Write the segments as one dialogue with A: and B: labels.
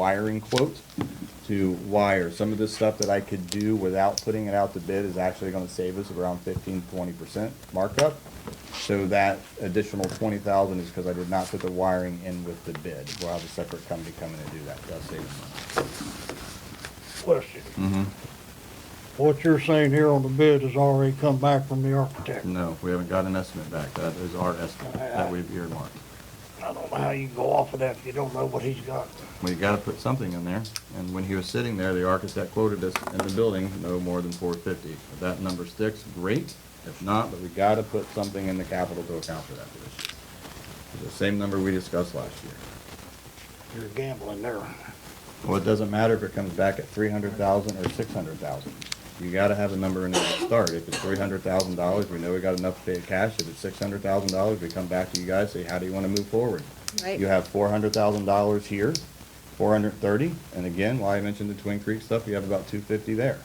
A: wiring quote to wire. Some of this stuff that I could do without putting it out to bid is actually gonna save us around 15 20 percent markup. So that additional twenty thousand is because I did not put the wiring in with the bid. We'll have a separate company come in and do that. That'll save us money.
B: question. What you're saying here on the bid has already come back from the architect.
A: No, we haven't got an estimate back. That is our estimate that we've earmarked.
C: Mm-hmm.
B: I don't know how you can go off of that if you don't know what he's got.
A: We gotta put something in there, and when he was sitting there, the architect quoted us in the building, no more than four fifty. If that number sticks, great, if not, but we gotta put something in the capital to account for that this year. It's The same number we discussed last year.
B: You're gambling there.
A: Well, it doesn't matter if it comes back at three hundred thousand or six hundred thousand. You gotta have a number in there to start. If it's three hundred thousand dollars, we know we got enough to pay it cash. If it's six hundred thousand dollars, we come back to you guys, say, how do you wanna move forward?
D: Right.
A: You have four hundred thousand dollars here, four hundred thirty, and again, why I mentioned the Twin Creek stuff, you have about two fifty there.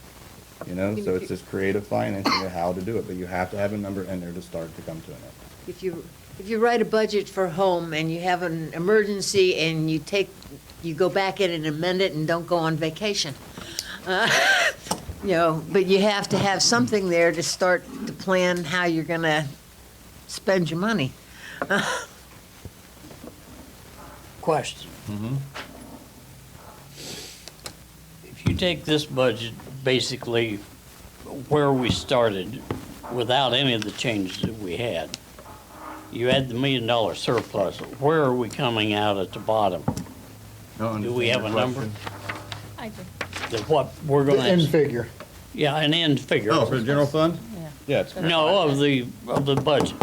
A: You know, so it's this creative financing of how to do it, but you have to have a number in there to start to come to an end.
D: If you, if you write a budget for home and you have an emergency and you take, you go back in and amend it and don't go on vacation. Uh, You know, but you have to have something there to start to plan how you're gonna spend your money.
E: Question. If you take this budget, basically where we started, without any of the changes that we had, you add the million dollar surplus, where are we coming out at the bottom? Do we have a number
F: I do,
E: that what we're
B: The end
E: gonna,
B: figure.
E: yeah, an end figure?
A: Oh, for the general fund?
F: yeah.
A: Yeah, it's,
E: No, of the, of the budget,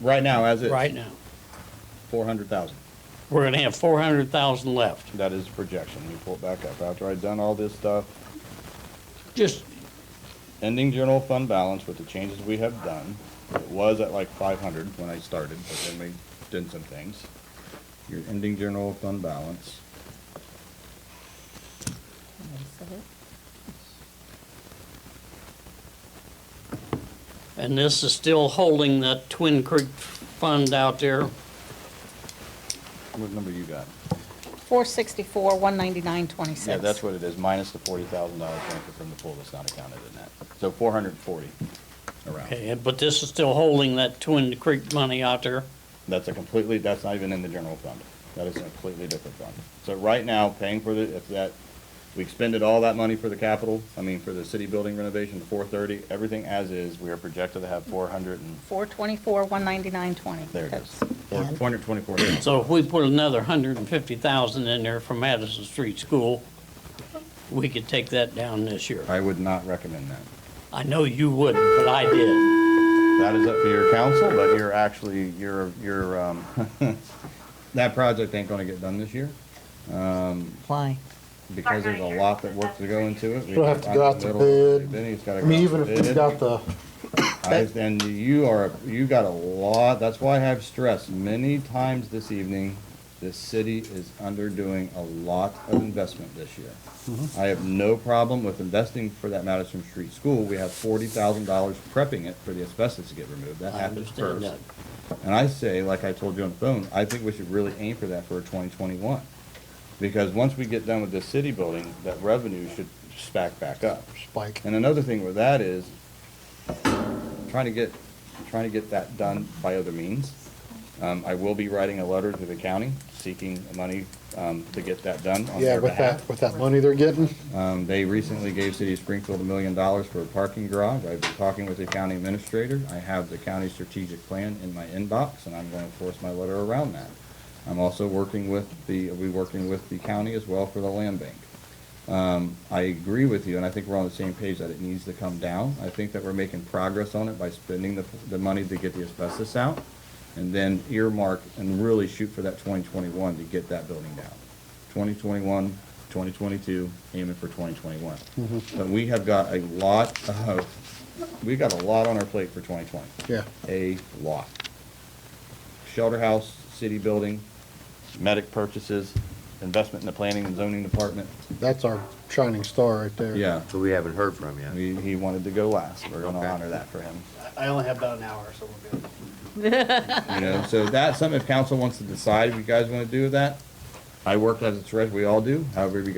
A: right now, as it's
E: right now.
A: four hundred thousand.
E: We're gonna have four hundred thousand left.
A: That is projection. Let me pull it back up. After I'd done all this stuff,
E: Just
A: ending general fund balance with the changes we have done, it was at like five hundred when I started, but then we did some things. Your ending general fund balance,
E: And this is still holding that Twin Creek fund out there.
A: what number you got?
F: Four sixty-four, one ninety-nine, twenty-six.
A: Yeah, that's what it is, minus the forty thousand dollars transfer from the pool that's not accounted in that. So four hundred and forty around.
E: Okay, and- but this is still holding that Twin Creek money out there.
A: That's a completely, that's not even in the general fund. That is a completely different fund. So right now, paying for the, if that, we expended all that money for the capital, I mean, for the city building renovation, four thirty, everything as is, we are projected to have four hundred and,
F: Four twenty-four, one ninety-nine, twenty.
A: there it is. Four hundred twenty-four thousand.
E: So if we put another hundred and fifty thousand in there for Madison Street School, we could take that down this year.
A: I would not recommend that.
E: I know you wouldn't, but I did.
A: That is up to your council, but you're actually, you're, you're, um, that project ain't gonna get done this year.
D: Why?
A: because there's a lot that works to go into it.
B: We'll have to go out to
A: I'm in the middle.
B: bid.
A: Then he's gotta
B: I
A: go out
B: mean,
A: to
B: even if we've
A: bid.
B: got the,
A: I- And you are, you got a lot, that's why I have stressed many times this evening, this city is underdoing a lot of investment this year.
B: Mm-hmm.
A: I have no problem with investing for that Madison Street School. We have forty thousand dollars prepping it for the asbestos to get removed. That
E: I
A: happens
E: understand
A: first.
E: that.
A: And I say, like I told you on the phone, I think we should really aim for that for twenty twenty-one. Because once we get done with this city building, that revenue should spack back up.
B: Spike.
A: And another thing with that is trying to get, trying to get that done by other means. Um, I will be writing a letter to the county seeking money, um, to get that done on
B: yeah,
A: their
B: with
A: behalf.
B: that, with that money they're getting,
A: Um, they recently gave City of Springfield a million dollars for a parking garage. I've been talking with the county administrator. I have the county strategic plan in my inbox, and I'm going to force my letter around that. I'm also working with the, we working with the county as well for the land bank. Um, I agree with you, and I think we're on the same page that it needs to come down. I think that we're making progress on it by spending the, the money to get the asbestos out, and then earmark and really shoot for that twenty twenty-one to get that building down. 2021, 2022, aiming for 2021. But we have got a lot of, we got a lot on our plate for 2020.
B: yeah.
A: A lot. Shelter house, city building, medic purchases, investment in the planning and zoning department.
B: That's our shining star right there.
A: Yeah,
G: So we haven't heard from yet.
A: he, he wanted to go last. We're gonna
G: Okay.
A: honor that for him.
C: I only have about an hour, so we'll be able
A: You know, so that's something if council wants to decide, if you guys wanna do with that, I worked as a treasurer, we all do, however, we